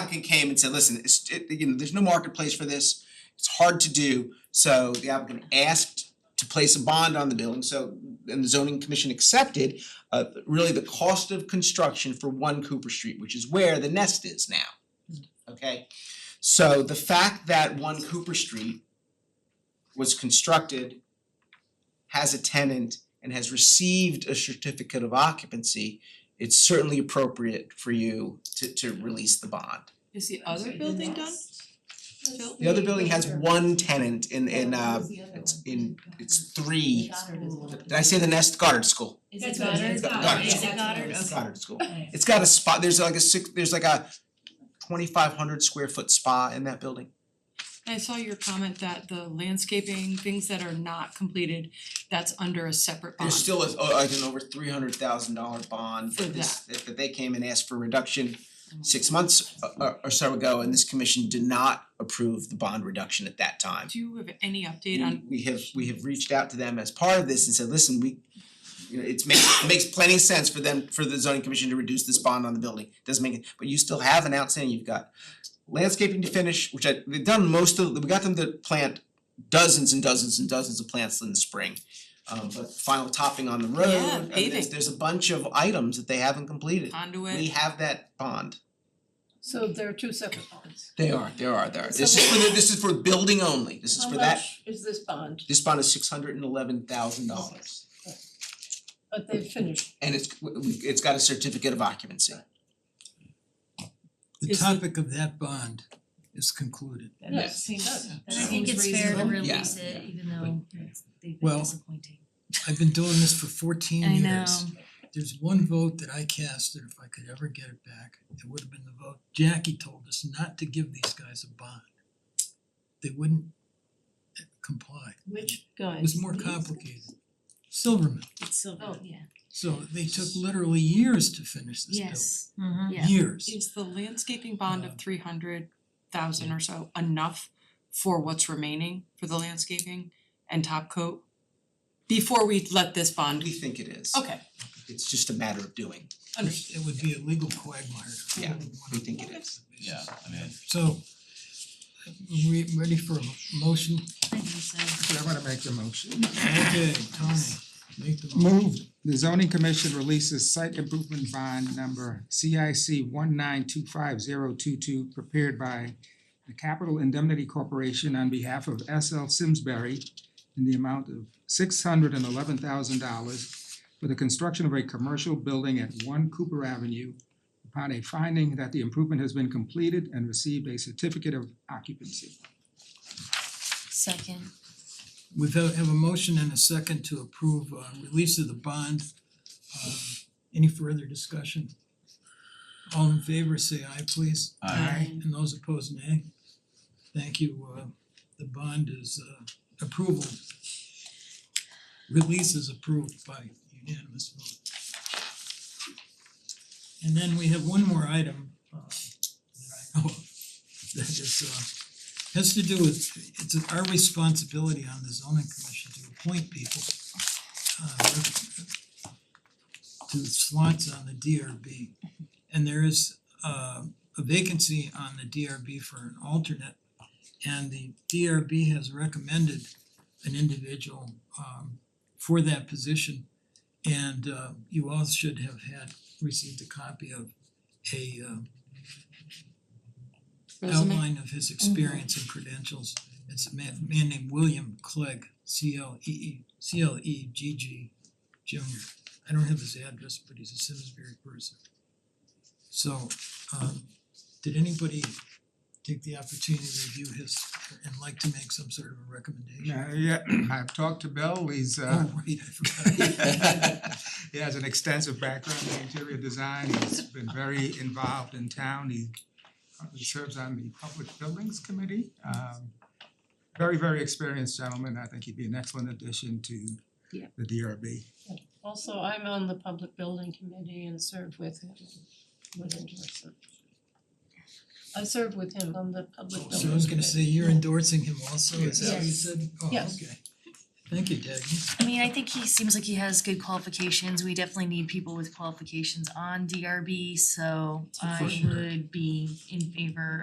applicant came and said, listen, it's it, you know, there's no marketplace for this, it's hard to do. So the applicant asked to place a bond on the building, so and the zoning commission accepted uh really the cost of construction for one Cooper Street, which is where the nest is now. Okay, so the fact that one Cooper Street was constructed, has a tenant and has received a certificate of occupancy, it's certainly appropriate for you to to release the bond. Is the other building done? Phil? The other building has one tenant in in uh it's in it's three, did I say the nest Goddard School? Is That's it what it Goddard? is. Goddard. Is it Goddard? It's Okay. Goddard School. It's got a spot, there's like a six, there's like a twenty five hundred square foot spa in that building. I saw your comment that the landscaping, things that are not completed, that's under a separate bond. There's still a, oh, like an over three hundred thousand dollar bond For that this, that that they came and asked for reduction Um, six months uh, uh, or so ago, and this commission did not approve the bond reduction at that time. Do you have any update on, We we have, we have reached out to them as part of this and said, listen, we, you know, it's makes, it makes plenty of sense for them, for the zoning commission to reduce this bond on the building, doesn't make it, but you still have an outstanding, you've got landscaping to finish, which I, they've done most of, we got them to plant dozens and dozens and dozens of plants in the spring. Um but final topping on the road, Yeah, and there's paving. there's a bunch of items that they haven't completed. We conduit? have that bond. So there are two separate bonds. They are, there are, there are. This So- is for the, this is for building only, this is for How that, much is this bond? this bond is six hundred and eleven thousand dollars. But they've finished. and it's it's got a certificate of occupancy. The Is the- topic of that bond is concluded. That does Yes. seem- And I think it's fair to release Yeah. it, even though it's- they've been Well, disappointing. I've been doing this for fourteen I years. know. There's one vote that I cast that if I could ever get it back, it would have been the vote Jackie told us not to give these guys a bond. They wouldn't uh, comply. Which It guys? was more complicated. Silverman, It's silver. Oh. yeah. so they took literally years to finish this building. Yes. Yeah. Years. Is the landscaping bond Uh, of three hundred thousand or so enough for what's remaining for the landscaping and top coat? Before we let this We bond, think it is. okay, It's just a matter of doing. It would be a legal quagmire. to- Yeah, We think it is. Yeah, I mean, So, we ready for a motion? I think so. Okay, I'm gonna make the motion. Okay, Tony, make the motion. Moved, the zoning commission releases site improvement bond number CIC one nine two five zero two two prepared by the Capital Indemnity Corporation on behalf of S.L. Simsbury in the amount of six hundred and eleven thousand dollars for the construction of a commercial building at one Cooper Avenue upon a finding that the improvement has been completed and received a certificate of occupancy. Second. We have have a motion and a second to approve uh release of the bond. Um any further discussion? All in favor, say aye please. Aye. And those opposed, nay. Thank you, uh the bond is uh approval. Release is approved by unanimous vote. And then we have one more item uh that I know of that is uh has to do with, it's our responsibility on the zoning commission to appoint people uh, to slots on the DRB. And there is uh, a vacancy on the DRB for an alternate. And the DRB has recommended an individual um, for that position. And uh, you all should have had, received a copy of a uh, resume? outline of his experience and credentials. It's a man man named William Clegg, C L E E, C L E G G Junior. I don't have his address, but he's a Simsbury person. So um did anybody take the opportunity to review his and like to make some sort of a recommendation? Yeah, yeah, uh, I've talked to Bill, he's uh Oh, right, I forgot. He has an extensive background in interior design, he's been very involved in town, he currently serves on the Public Buildings Committee. Um very, very experienced gentleman, I think he'd be an excellent addition to Yeah. the DRB. Also, I'm on the public building committee and serve with him, with endorsement. I serve with him on the public building So I was gonna say, you're committee. endorsing him also, is that what you Yes. said? Oh, Yes. okay. Thank you, Dagny. I mean, I think he seems like he has good qualifications, we definitely need people with qualifications on DRB, so I For sure. would be in favor